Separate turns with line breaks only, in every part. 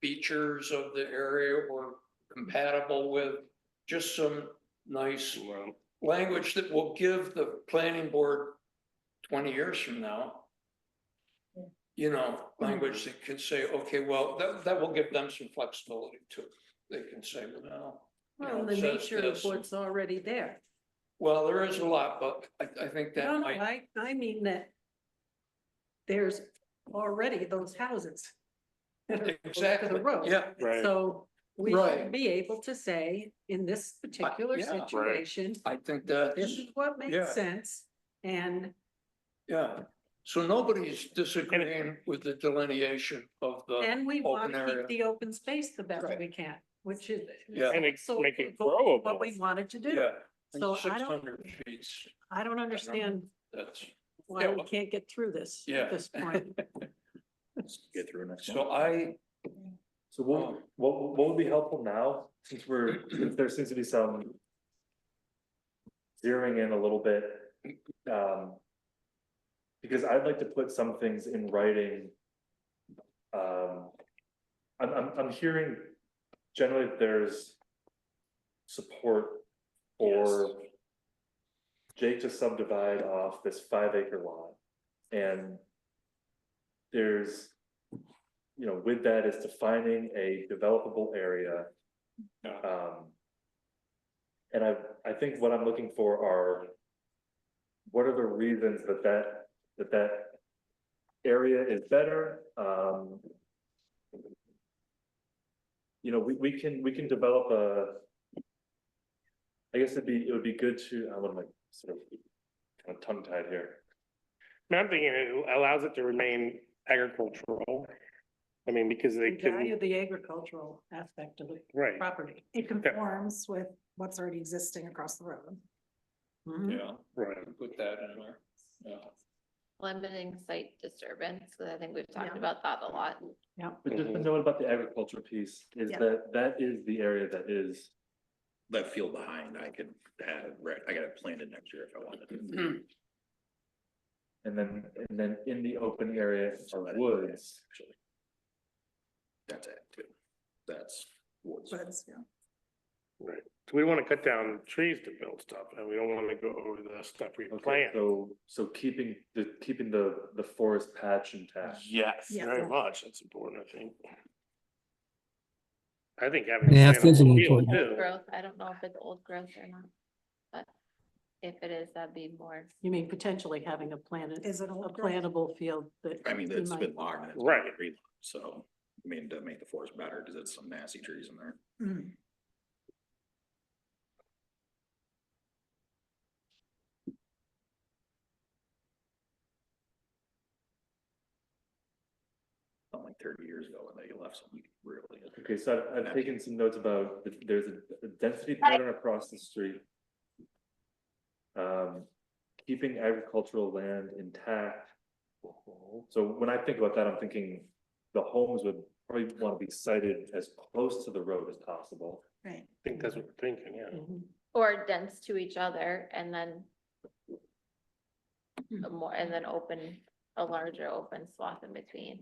features of the area were compatible with. Just some nice
Well,
language that will give the planning board twenty years from now. You know, language that can say, okay, well, that, that will give them some flexibility too. They can say, well, you know,
Well, the
it says
nature of
this.
what's already there.
well, there is a lot, but I, I think
No,
that
no,
might,
I, I mean that there's already those houses. that are close to the
exactly,
road.
yeah,
right,
So we
Right.
should be able to say, in this particular
yeah. Right.
situation,
I think
this
that's,
is what
yeah.
makes sense. And
yeah. So nobody's disagreeing with the delineation of the,
And we want
Uh, open
to
area.
keep the open space the best
Right.
we can, which is.
Yeah.
and it-
So
make it
What we
growable.
wanted to do.
yeah.
So I
Six
don't,
hundred feet,
I don't understand
that's,
why
Yeah,
we
well-
can't get through this
Yeah.
at this point.
Get through next. Um,
so I,
So what, what, what would be helpful now, since we're, since there seems to be some. Zeroing in a little bit, um. Because I'd like to put some things in writing. Um, I'm, I'm, I'm hearing generally that there's. Support for. Jake to subdivide off this five acre lot and. There's you know, with that is defining a developable area.
Yeah.
Um. And I, I think what I'm looking for are. What are the reasons that that, that that. Area is better, um. You know, we, we can, we can develop a. I guess it'd be, it would be good to, I'm like, sort of, kind of tongue tied here.
Now I'm thinking it allows it to remain agricultural. I mean, because they
We value
can,
the agricultural aspect of the
right,
property.
It conforms with what's already existing across the road.
Mm-hmm.
Mhm.
yeah,
right.
put that in there, yeah.
limiting site disturbance, because I think we've
Yeah.
talked about that a lot.
But just a
Mm-hmm.
note about the agriculture piece is
Yeah.
that that is the area that is
left field behind, I could have, re- I got it planted next year if I wanted to.
Mm-hmm. And then, and then in the open area
So
are
that-
woods,
Actually. That's it, too. That's woods.
But it's, yeah.
So we want to cut down trees to build stuff and we don't want to go over the stuff we
okay,
plant.
so, so keeping the, keeping the, the forest patch intact.
Yes,
Yeah.
very much. That's important, I think. I think having.
Yeah,
a
that's an
plantable field,
important-
too.
Growth, I don't know if it's old growth or not, but if it is, that'd be more.
You mean potentially having a planted,
Is it
a
all growth?
plantable field that.
I mean,
we
it's
might-
been logged. and it's
Right.
been green, So, I mean, to make the forest better, because it's some nasty trees in there.
Mm.
Not like thirty years ago when they left something really.
Okay, so I've, I've taken some notes about, th- there's a a density pattern across the street. Um, keeping agricultural land intact. So when I think about that, I'm thinking the homes would probably want to be sited as close to the road as possible.
Right.
I think that's what we're thinking, yeah.
Mhm.
Or dense to each other and then a more, and then open, a larger open swath in between.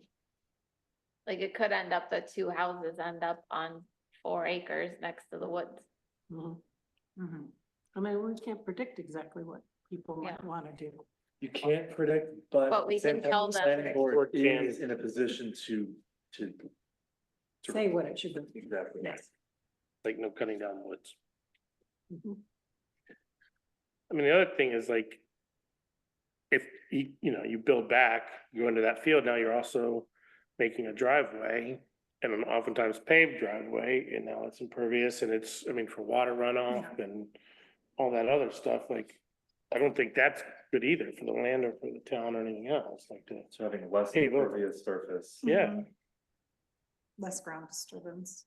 Like it could end up that two houses end up on four acres next to the woods.
Mhm.
Mhm.
I mean, we can't predict exactly what people might
Yeah.
want to do.
You can't predict, but.
But we
at the same
can
time,
tell
the
them.
Planning board
Or can.
is in a position to, to. to-
Say what it should be.
Exactly.
Yes.
Like no cutting down woods.
Mhm.
I mean, the other thing is like. If you, you know, you build back, you go into that field, now you're also making a driveway. And an oftentimes paved driveway, and now it's impervious and it's, I mean, for water runoff and all that other stuff, like. I don't think that's good either for the land or for the town or anything else like that.
To having less
Hey, look.
impervious surface.
Yeah,
Mhm. Less ground disturbance.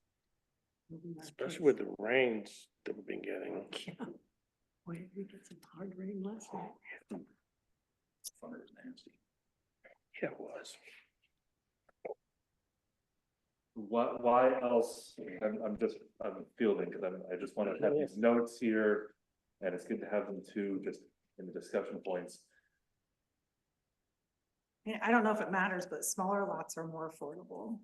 Mhm.
especially with the rains that we've been getting.
Yeah. Why did we get some hard rain last night?
Thunder is nasty.
Yeah, it was.
Why, why else, I'm, I'm just, I'm fielding, because I'm, I just want to have these notes here. And it's good to have them too, just in the discussion points.
I mean, I don't know if it matters, but smaller lots are more affordable.